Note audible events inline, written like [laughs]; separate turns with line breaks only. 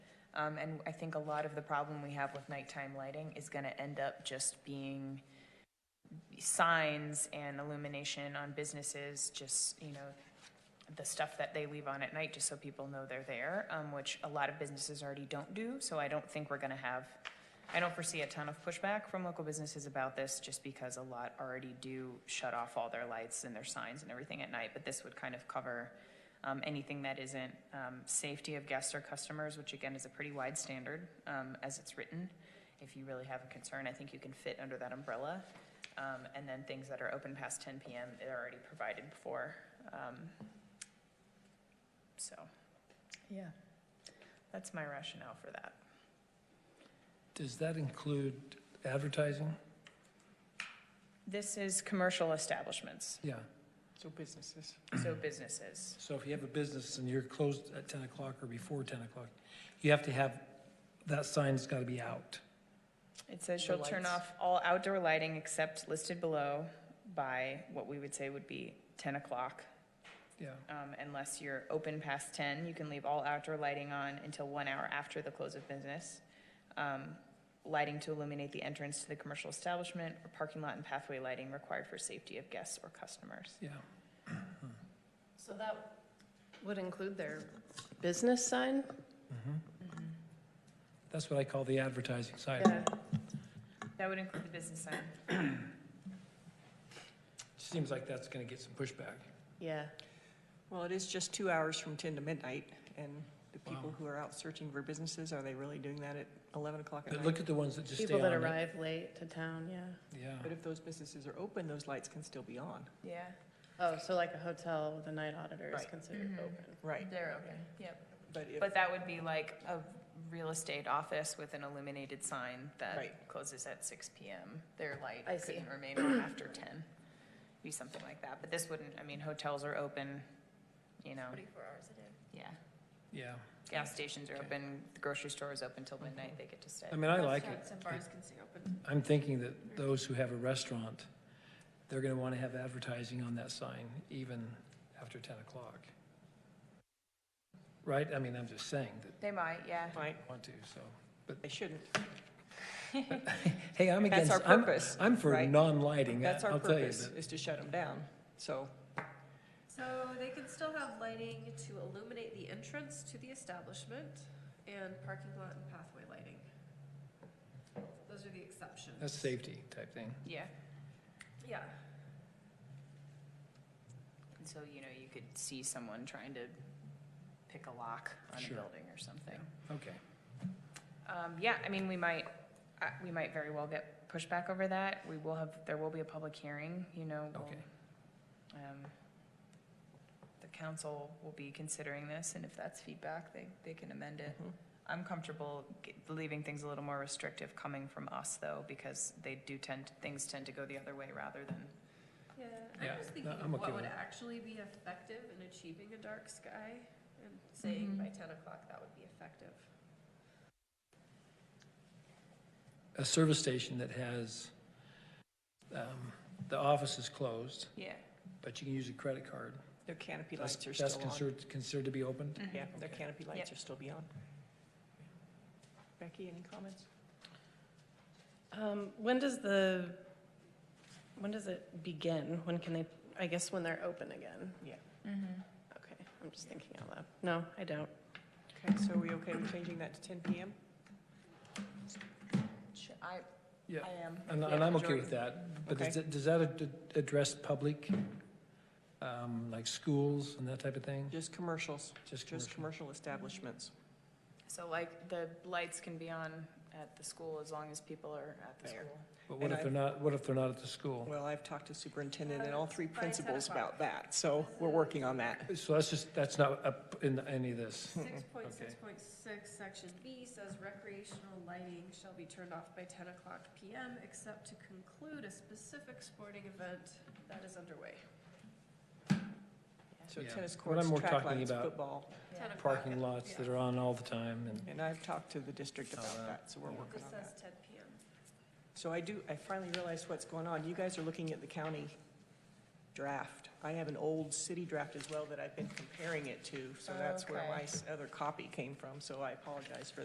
Um, and I think a lot of the problem we have with nighttime lighting is gonna end up just being signs and illumination on businesses, just, you know, the stuff that they leave on at night, just so people know they're there, um, which a lot of businesses already don't do, so I don't think we're gonna have, I don't foresee a ton of pushback from local businesses about this, just because a lot already do shut off all their lights and their signs and everything at night, but this would kind of cover, um, anything that isn't, um, safety of guests or customers, which again is a pretty wide standard, um, as it's written. If you really have a concern, I think you can fit under that umbrella. Um, and then things that are open past ten PM, they're already provided for, um, so, yeah, that's my rationale for that.
Does that include advertising?
This is commercial establishments,
Yeah.
So businesses.
[clears throat] so businesses.
So if you have a business and you're closed at 10 o'clock or before 10 o'clock, you have to have, that sign's got to be out.
It says
The
shall turn
lights.
off all outdoor lighting except listed below by what we would say would be ten o'clock.
Yeah.
Um, unless you're open past ten, you can leave all outdoor lighting on until one hour after the close of business. Um, lighting to illuminate the entrance to the commercial establishment or parking lot and pathway lighting required for safety of guests or customers.
Yeah.
So that would include their business sign?
That's what I call the advertising side.
Yeah,
That would include the business sign.
Seems like that's going to get some pushback.
yeah.
Well, it is just two hours from 10 to midnight, and the people
Wow.
who are out searching for businesses, are they really doing that at 11 o'clock at
But look
night?
at the ones that just stay
People
on.
that
it.
arrive late to town, yeah.
Yeah.
But if those businesses are open, those lights can still be on.
Yeah,
Oh, so like a hotel with a night auditor is
Right.
considered
Mhm.
open.
Right.
they're open, yep.
But if,
But that would be like a real estate office with an illuminated sign that
Right.
closes at six PM. Their light
I see.
couldn't remain on after ten, be something like that. But this wouldn't, I mean, hotels are open, you know,
Twenty-four hours a day.
yeah.
Yeah.
Gas stations are
Okay. Um,
open, the grocery store is open till midnight, they get to stay.
I mean, I like it.
Restaurants and bars can stay open.
I'm thinking that those who have a restaurant, they're going to want to have advertising on that sign even after 10 o'clock. Right? I mean, I'm just saying that
They might, yeah.
right,
I want to, so.
they shouldn't.
Hey, I'm
That's
against,
our
I'm,
purpose.
I'm for
right?
non-lighting, I-
That's our
I'll tell you.
purpose,
but-
is to shut them down. So,
So they can still have lighting to illuminate the entrance to the establishment and parking lot and pathway lighting. Those are the exceptions.
That's safety type thing.
Yeah,
Yeah,
and so, you know, you could see someone trying to pick a lock on a
Sure.
building or something.
Okay.
Um, yeah, I mean, we might, uh, we might very well get pushback over that. We will have, there will be a public hearing, you know. we'll,
Okay.
um, The council will be considering this, and if that's feedback, they, they can amend it.
mhm.
I'm comfortable g- leaving things a little more restrictive coming from us, though, because they do tend, things tend to go the other way rather than,
yeah.
Yeah,
I'm just thinking
no,
of
I'm okay
what
with
would
it.
actually be effective in achieving a dark sky and saying
Mhm.
by ten o'clock that would be effective.
A service station that has, um, the office is closed,
yeah.
but you can use a credit card.
their canopy
That's,
lights are
that's
still on.
considered, considered to be open?
Mhm.
Mm-hmm. Yeah, their
Okay.
canopy lights
Yep.
are still be on. Becky, any comments?
Um, when does the, when does it begin? When can they, I guess when they're open again?
Mhm.
Okay, I'm just thinking out loud. No, I don't.
Okay, so are we okay with changing that to 10 PM?
Sure, I,
Yeah.
I am.
And,
Yeah,
and I'm okay
Jordan.
with that, but does
Okay.
it, does that ad- address public, um, like schools and that type of thing?
Just commercials,
Just
just
commercial?
commercial establishments.
So like, the lights can be on at the school as long as people are at the
There.
school.
But what
and
if
I-
they're not, what if they're not at the school?
Well, I've talked to superintendent and all three
By 10
principals
o'clock.
about that, so we're working on that.
So that's just, that's not up in any of
[laughs]
this.
Six point six point six, section B says recreational lighting shall be turned off by ten o'clock PM except to conclude a specific sporting event that is underway.
So
Yeah.
tennis
What
courts,
I'm more
track
talking
lines,
about-
football,
Yeah.
10 o'clock.
parking lots that
Yeah.
are on all the time and.
and I've talked to the district
Oh,
about
wow.
that, so we're
Yeah.
working
This
on
says
that.
ten PM.
So I do, I finally realized what's going on. You guys are looking at the county draft. I have an old city draft as well that I've been comparing it to, so that's where
Okay.
my s- other copy came from, so I apologize for